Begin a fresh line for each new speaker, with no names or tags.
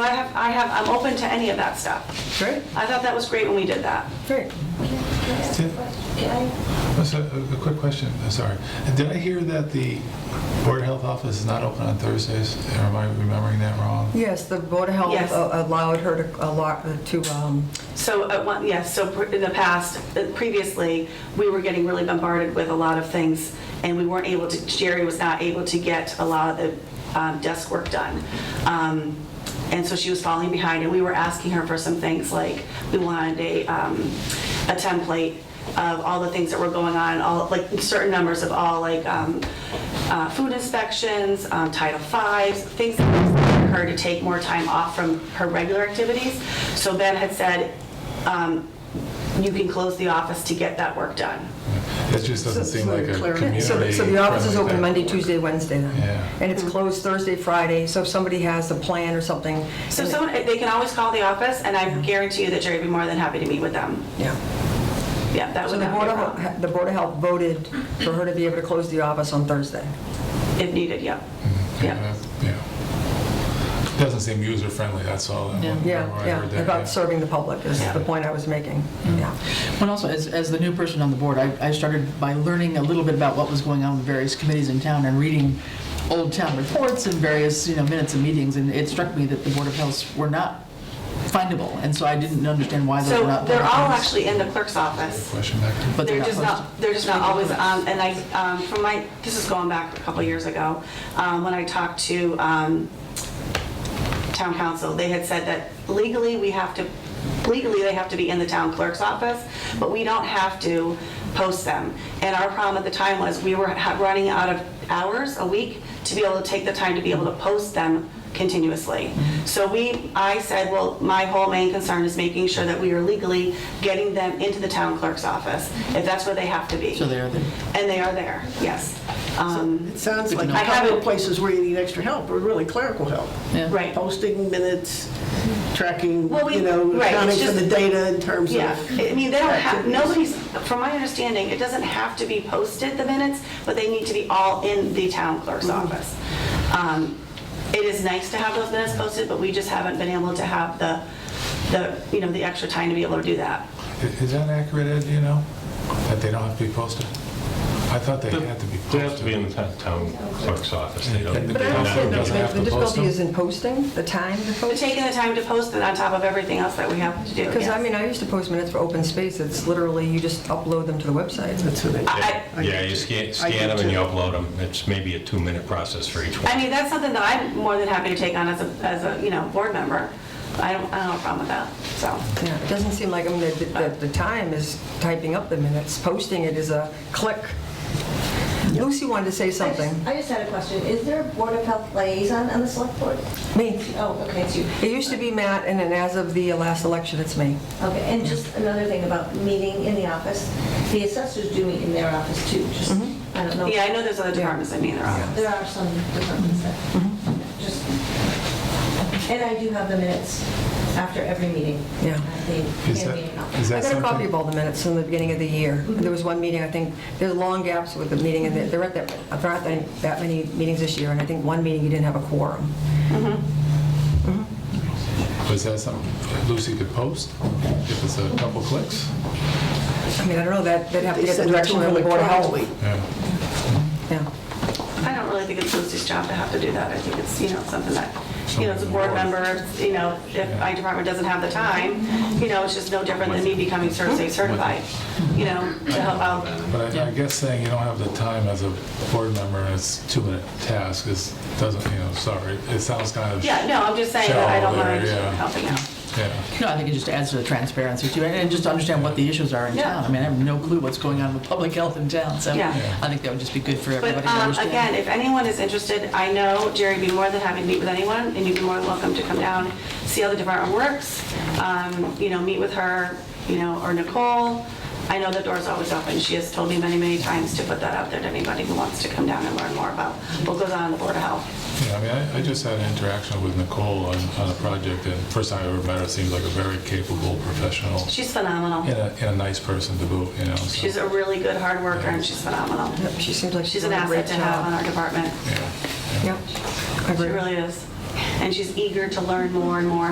I have, I have, I'm open to any of that stuff.
Great,
I thought that was great when we did that.
great.
Did- That's a, Oh, a quick question, uh, sorry. Did I hear that the Board of Health office is not open on Thursdays? Or am I remembering that wrong?
Yes, the Board of Health
Yes.
a- allowed her to, allow- to, um,
So, at one, yes, so pr- in the past, uh, previously, we were getting really bombarded with a lot of things, and we weren't able to, Jerry was not able to get a lot of the um, desk work done. Um, And so she was falling behind, and we were asking her for some things, like, we wanted a, um, a template of all the things that were going on, all, like, certain numbers of all, like, um, uh, food inspections, um, Title V's, things that required her to take more time off from her regular activities. So Ben had said, um, you can close the office to get that work done.
It just doesn't
So-
seem
so
like a
clear.
community.
So the- so the office is
friendly
open
thing.
Monday, Tuesday, Wednesday then?
Yeah.
And it's closed Thursday, Friday, so if somebody has a plan or something.
So
and-
someone, they can always call the office, and I guarantee you that Jerry would be more than happy to meet with them.
Yeah.
Yeah, that
So
would
the
not
Board
be a
of,
problem,
Health- the Board of Health voted for her to be able to close the office on Thursday.
if needed, yeah.
Yeah,
Yeah.
that- Yeah. Doesn't seem user-friendly, that's all. I wonder
Yeah,
why I heard
yeah,
that,
about serving the public is
Yeah.
the point I was making,
Hmm.
yeah.
Well, also, as, as the new person on the board, I, I started by learning a little bit about what was going on with various committees in town and reading old town reports and various, you know, minutes of meetings, and it struck me that the Board of Health were not findable, and so I didn't understand why they
So
were not.
they're all
findable.
actually in the clerk's office.
Question back to
But
They're
they're
just
not
not, they're just not always on, and I, um, from my, this is going back a couple years ago, um, when I talked to um, town council, they had said that legally, we have to, legally, they have to be in the town clerk's office, but we don't have to post them. And our problem at the time was, we were ha- running out of hours a week to be able to take the time to be able to post them continuously. So we, I said, well, my whole main concern is making sure that we are legally getting them into the town clerk's office, if that's where they have to be.
So they're, the-
And they are there, yes. Um,
It sounds like
I
a
haven't-
couple of places where you need extra help, or really clerical help.
yeah.
Right.
Posting minutes, tracking,
Well, we-
you know,
right, it's
accounting for
just-
the data in terms
Yeah,
of.
I mean, they don't have,
activities.
nobody's, from my understanding, it doesn't have to be posted, the minutes, but they need to be all in the town clerk's
Mm-hmm.
office. Um, It is nice to have those minutes posted, but we just haven't been able to have the, the, you know, the extra time to be able to do that.
Is is that accurate, Ed, do you know? That they don't have to be posted? I thought they had to be posted.
They have to be in the town- town clerk's office. They don't.
And
But I don't
Yeah.
see
Doesn't have
the- the
to post
difficulty
them?
is in posting, the time to
But
post.
taking the time to post it on top of everything else that we have to do.
Because I
yes.
mean, I used to post minutes for open space, it's literally, you just upload them to the website.
That's what I,
I-
I
Yeah,
get
you
you.
scan,
I get
scan them and
you.
you upload them. It's maybe a two-minute process for each
I
one.
mean, that's something that I'm more than happy to take on as a, as a, you know, board member. I don't, I don't have a problem with that, so.
Yeah, it doesn't seem like, I mean, the, the, the time is typing up the minutes, posting it is a click. Lucy wanted to say
I just-
something.
I just had a question. Is there a Board of Health liaison on the select board?
Me,
Oh, okay, it's you.
it used to be Matt, and then as of the last election, it's me.
Okay, and just another thing about meeting in the office. The assessors do meet in their office too, just,
Mm-hmm.
I don't know.
Yeah, I know there's other departments that meet in their office.
There are some departments that,
Mm-hmm.
just, and I do have the minutes after every meeting.
Yeah.
They
Is
can
that-
be in office.
is
I
that
got a
something?
copy of all the minutes from the beginning of the year.
Mm-hmm.
There was one meeting, I think, there's long gaps with the meeting, and there aren't that, there aren't that- that many meetings this year, and I think one meeting you didn't have a quorum.
Was that something Lucy could post if it's a couple clicks?
I mean, I don't know, that, they'd have to
They
get the
send it to
direction
her
of the Board of Health.
electronically.
Yeah.
Yeah.
I don't really think it's Lucy's job to have to do that. I think it's, you know, something that, you know, as a board member, you know, if my department doesn't have the time, you know, it's just no different than me becoming cert- say certified, you know, to help out.
But I- I guess saying you don't have the time as a board member and it's a two-minute task is, doesn't, you know, sorry, it sounds kind of,
Yeah, no, I'm just saying that I don't mind
Shallow there, yeah.
helping out.
yeah.
No, I think it just adds to the transparency too, and and just to understand what the issues are in
Yeah.
town. I mean, I have no clue what's going on with public health in town, so
Yeah.
I think that would just be good for everybody
But
to
um,
understand.
again, if anyone is interested, I know Jerry would be more than happy to meet with anyone, and you'd be more than welcome to come down, see how the department works, um, you know, meet with her, you know, or Nicole. I know the door's always open. She has told me many, many times to put that out there to anybody who wants to come down and learn more about what goes on in the Board of Health.
Yeah, I mean, I- I just had an interaction with Nicole on on a project, and first time I ever met her, seems like a very capable professional
She's phenomenal.
and a, and a nice person to boot, you know, so.
She's a really good hard worker, and she's phenomenal.
Yep, She seems like she's
She's
doing
an
a great
asset to have on
job.
our department.
yeah.
Yep, I
She
agree.
really is. and she's eager to learn more and more and more.